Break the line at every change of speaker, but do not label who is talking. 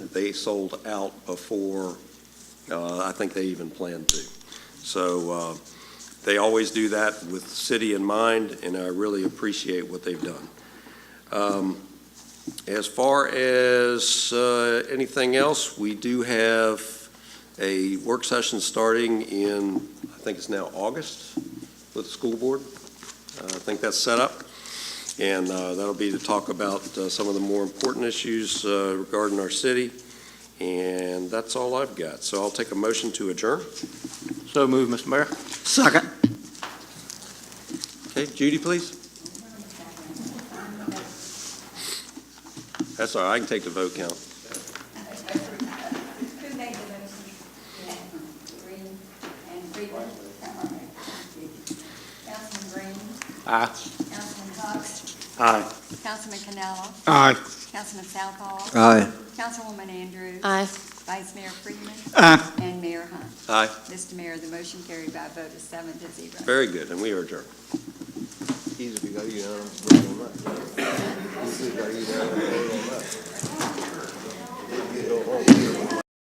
they sold out before, uh, I think they even planned to. So uh, they always do that with the city in mind, and I really appreciate what they've done. Um, As far as uh, anything else, we do have a work session starting in, I think it's now August, with the school board. Uh, I think that's set up. And uh, that'll be to talk about uh, some of the more important issues uh, regarding our city. And that's all I've got. So I'll take a motion to adjourn.
So move, Mr. Mayor.
Second.
Okay, Judy, please. That's all right, I can take the vote count.
Who made the motion? Green and Freeman. Councilman Green,
Aye.
Councilman Cox,
Aye.
Councilman Canelo,
Aye.
Councilman Southall,
Aye.
Councilwoman Andrews,
Aye.
Vice Mayor Freeman,
Aye.
and Mayor Hunt.
Aye.
Mr. Mayor, the motion carried by a vote of seven to zero.
Very good, and we are adjourned. Easy if you go, you know.